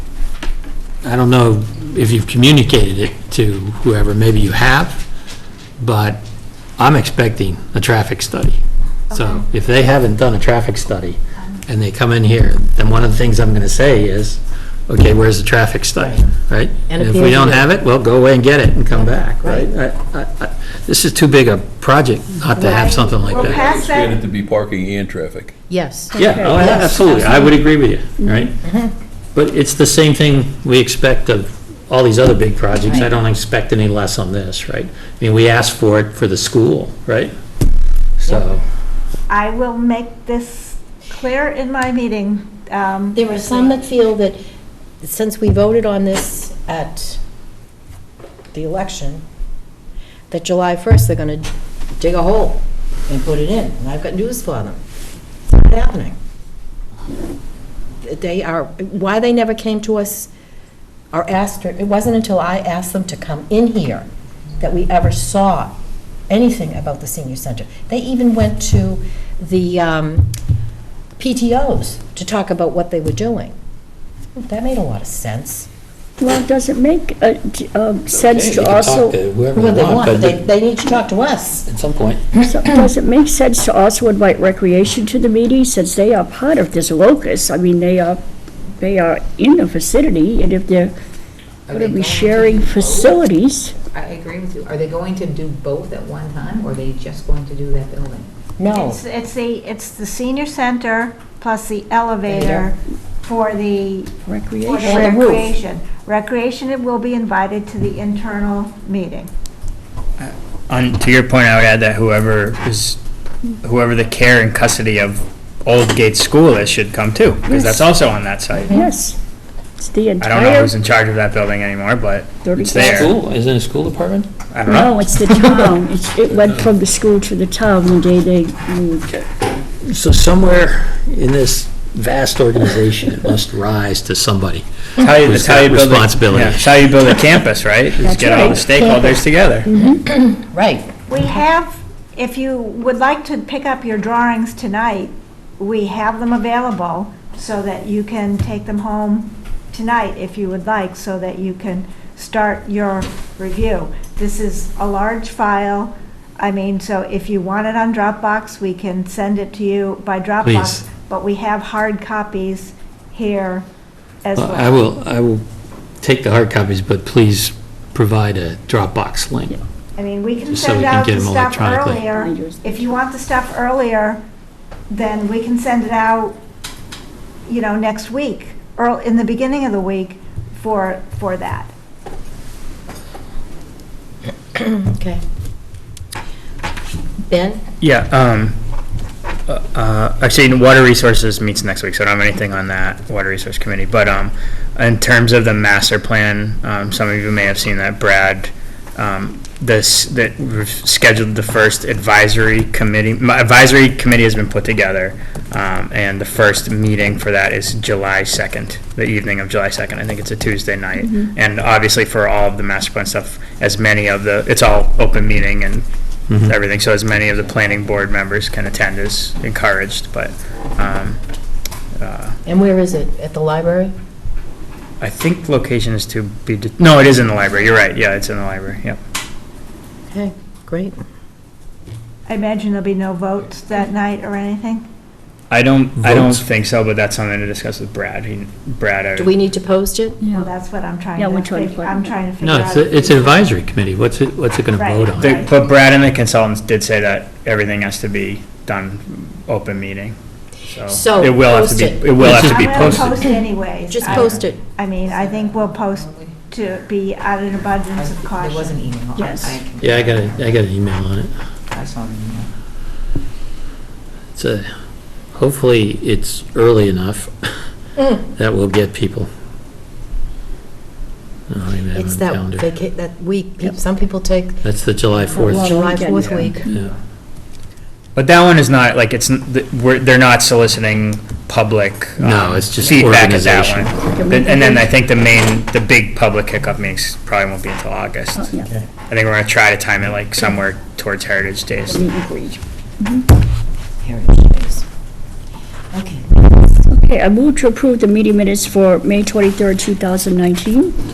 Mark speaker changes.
Speaker 1: I don't know if you've communicated it to whoever, maybe you have, but I'm expecting a traffic study. So if they haven't done a traffic study and they come in here, then one of the things I'm going to say is, okay, where's the traffic study, right?
Speaker 2: And
Speaker 1: And
Speaker 2: a
Speaker 1: if we don't
Speaker 2: PhD.
Speaker 1: have it, well, go away and get it and come back, right? I- I- I- This is too big a project not to have
Speaker 3: Right.
Speaker 1: something like
Speaker 3: We're
Speaker 1: that.
Speaker 3: past that.
Speaker 4: Expand it to be parking and traffic.
Speaker 2: Yes.
Speaker 1: Yeah, oh, yeah,
Speaker 2: Yes,
Speaker 1: absolutely, I would agree with you, right? But it's the same thing we expect of all these other big projects, I
Speaker 2: Right.
Speaker 1: don't expect any less on this, right? I mean, we asked for it for the school, right? So,
Speaker 3: I will make this clear in my meeting. um,
Speaker 2: There are some that feel that, since we voted on this at the election, that July 1st, they're going to dig a hole and put it in, and I've got news for them. It's not happening. They are, why they never came to us or asked, it wasn't until I asked them to come in here that we ever saw anything about the senior center. They even went to the um, PTOs to talk about what they were doing. That made a lot of sense.
Speaker 5: Well, does it make uh, d- um, sense
Speaker 1: you
Speaker 5: to
Speaker 1: can talk
Speaker 5: also,
Speaker 1: to whoever
Speaker 2: Well,
Speaker 1: you
Speaker 2: they
Speaker 1: want,
Speaker 2: want,
Speaker 1: but
Speaker 2: they,
Speaker 1: at
Speaker 2: they need to talk to us.
Speaker 1: some point,
Speaker 5: so- does it make sense to also invite recreation to the meeting, since they are part of this locus? I mean, they are, they are in the vicinity, and if they're
Speaker 6: Are
Speaker 5: going to
Speaker 6: they
Speaker 5: be
Speaker 6: going to
Speaker 5: sharing
Speaker 6: do both?
Speaker 5: facilities,
Speaker 6: I agree with you. Are they going to do both at one time, or are they just going to do that building?
Speaker 2: No,
Speaker 3: It's it's the, it's the senior center plus the elevator for the, for the
Speaker 5: recreation,
Speaker 2: Or the roof.
Speaker 3: recreation. Recreation it will be invited to the internal meeting.
Speaker 7: On, to your point, I would add that whoever is, whoever the care and custody of Old Gate School is should come too, because that's
Speaker 5: Yes.
Speaker 7: also on that site.
Speaker 5: yes. It's the
Speaker 7: I don't know
Speaker 5: entire
Speaker 7: who's in charge of that building anymore, but it's
Speaker 5: 30,000.
Speaker 7: there.
Speaker 1: school, isn't it a school department?
Speaker 7: I don't know.
Speaker 5: No, it's the town. It's- It went from the school to the town the day they moved.
Speaker 1: So somewhere in this vast organization, it must rise to somebody.
Speaker 7: It's how you,
Speaker 1: Who's
Speaker 7: it's how you
Speaker 1: got
Speaker 7: build a-
Speaker 1: responsibility?
Speaker 7: yeah, it's how you build a campus, right? Is
Speaker 5: That's
Speaker 7: get all the
Speaker 5: right.
Speaker 7: stakeholders together.
Speaker 2: right.
Speaker 3: We have, if you would like to pick up your drawings tonight, we have them available so that you can take them home tonight if you would like, so that you can start your review. This is a large file. I mean, so if you want it on Dropbox, we can send it to you by
Speaker 1: Please.
Speaker 3: Dropbox. But we have hard copies here as well.
Speaker 1: I will, I will take the hard copies, but please provide a Dropbox link.
Speaker 3: I mean, we can
Speaker 1: Just so we
Speaker 3: send
Speaker 1: can
Speaker 3: out
Speaker 1: get
Speaker 3: the
Speaker 1: them
Speaker 3: stuff
Speaker 1: electronically.
Speaker 3: earlier.
Speaker 5: I just-
Speaker 3: If you want the stuff earlier, then we can send it out, you know, next week, or in the beginning of the week for, for that.
Speaker 2: Okay. Ben?
Speaker 7: Yeah, um, uh, uh, actually, Water Resources meets next week, so I don't have anything on that Water Resource Committee. But, um, in terms of the master plan, um, some of you may have seen that Brad, um, this, that we've scheduled the first advisory committee, my advisory committee has been put together. Um, and the first meeting for that is July second, the evening of July second. I think it's a Tuesday night. And obviously for all of the master plan stuff, as many of the, it's all open meeting and everything, so as many of the planning board members can attend is encouraged, but um, uh,
Speaker 2: And where is it? At the library?
Speaker 7: I think location is to be, de- no, it is in the library, you're right, yeah, it's in the library, yep.
Speaker 2: Okay, great.
Speaker 3: I imagine there'll be no votes that night or anything?
Speaker 7: I don't, I don't
Speaker 1: Votes.
Speaker 7: think so, but that's something to discuss with Brad, He- Brad, uh,
Speaker 2: Do
Speaker 7: I-
Speaker 2: we need to post it?
Speaker 3: Well, that's what I'm trying
Speaker 5: Yeah, we're
Speaker 3: to
Speaker 5: trying to
Speaker 3: figure, I'm
Speaker 5: find-
Speaker 3: trying to figure
Speaker 1: No,
Speaker 3: out.
Speaker 1: it's, a- it's an advisory committee, what's it, what's it gonna
Speaker 3: Right.
Speaker 1: vote on?
Speaker 3: They-
Speaker 7: the- but Brad and the consultants did say that everything has to be done open meeting,
Speaker 2: So,
Speaker 7: so. It will have to
Speaker 2: post
Speaker 7: be,
Speaker 2: it.
Speaker 7: it will
Speaker 1: Let's
Speaker 7: have to
Speaker 1: just-
Speaker 7: be
Speaker 3: I'm gonna
Speaker 7: posted.
Speaker 3: post anyways.
Speaker 2: Just
Speaker 3: I-
Speaker 2: post it.
Speaker 3: I mean, I think we'll post to be out of abundance of
Speaker 6: I- There was an
Speaker 3: caution.
Speaker 6: email. I-
Speaker 5: Yes.
Speaker 6: I can-
Speaker 1: Yeah, I got a, I got an email on it.
Speaker 6: I saw the email.
Speaker 1: It's a, hopefully, it's early enough
Speaker 2: Mm.
Speaker 1: that will get people. I don't even have
Speaker 2: It's
Speaker 1: a
Speaker 2: that,
Speaker 1: calendar.
Speaker 2: vaca- that week, pe- some people take
Speaker 1: That's the July
Speaker 5: Long
Speaker 1: 4th.
Speaker 2: July
Speaker 5: weekend.
Speaker 2: 4th week.
Speaker 1: Yeah.
Speaker 7: But that one is not, like, it's, n- th- we're, they're not soliciting public. um,
Speaker 1: No, it's just
Speaker 7: Feedback at that
Speaker 1: organization.
Speaker 7: one. Th- And then I think the main, the big public hiccup meetings probably won't be until August.
Speaker 5: Oh, yeah.
Speaker 7: I think we're gonna try to time it like somewhere towards Heritage Days.
Speaker 5: Meet and greet.
Speaker 2: Heritage Days. Okay.
Speaker 5: Okay, I move to approve the meeting minutes for May 23rd, 2019.